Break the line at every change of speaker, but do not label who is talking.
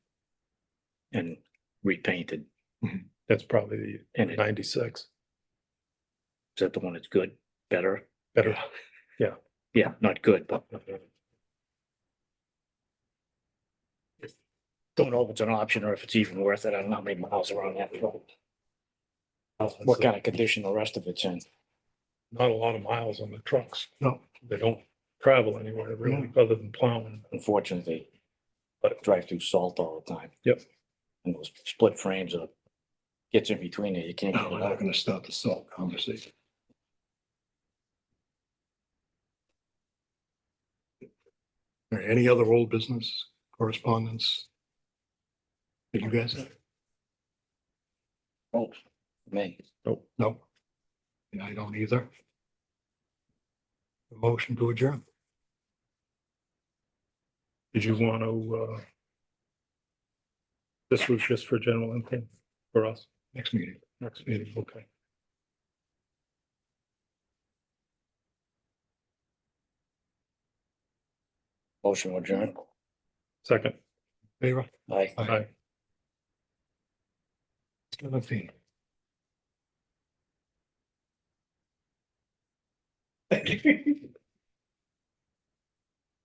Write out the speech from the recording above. and repainted.
That's probably
And
the
it-
ninety-six,
is that the one that's good, better?
better.
Yeah, not good, but don't know if it's an option or if it's even worth it. I don't know how many miles around that road. What kind of condition the rest of it's in.
Not a lot of miles on the trucks.
No.
They don't travel anywhere really, other than plowing.
unfortunately,
But-
drive through salt all the time.
Yep.
And those split frames are, gets in between there, you can't.
No,
get
we're
it
not
out.
gonna stop the salt conversation. All right, any other old business correspondence? Did you guys have?
Oh, man,
No. And I don't either. A Motion to adjourn.
Did you want to, uh, this was just for general intent for us?
Next meeting.
Next meeting, okay.
motion adjourned.
Second,
Favor?
Aye.
aye.
Seventeen.